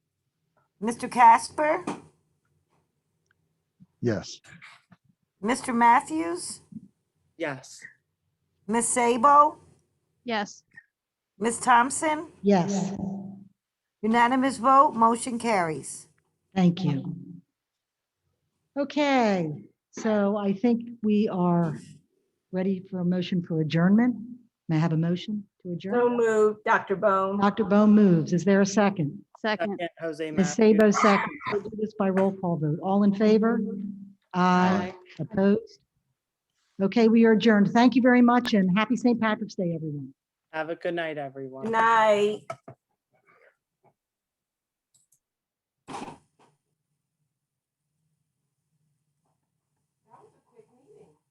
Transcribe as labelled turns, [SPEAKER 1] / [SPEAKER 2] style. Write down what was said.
[SPEAKER 1] Mr. Casper,
[SPEAKER 2] Yes.
[SPEAKER 1] Mr. Matthews,
[SPEAKER 3] Yes.
[SPEAKER 1] Miss Sabo,
[SPEAKER 4] Yes.
[SPEAKER 1] Miss Thompson,
[SPEAKER 5] Yes,
[SPEAKER 1] unanimous vote, motion carries.
[SPEAKER 5] thank you. Okay, so I think we are ready for a motion for adjournment. May I have a motion to
[SPEAKER 6] So
[SPEAKER 5] adjourn?
[SPEAKER 6] moved, Dr. Bone.
[SPEAKER 5] Dr. Bone moves. Is there a second?
[SPEAKER 4] Second.
[SPEAKER 3] Second, Jose
[SPEAKER 5] Ms.
[SPEAKER 3] Matthews.
[SPEAKER 5] Sabo seconds. We'll do this by roll call vote. All in favor? Aye. Opposed? Okay, we are adjourned. Thank you very much and happy St. Patrick's Day, everyone.
[SPEAKER 3] Have a good night, everyone.
[SPEAKER 6] Good night.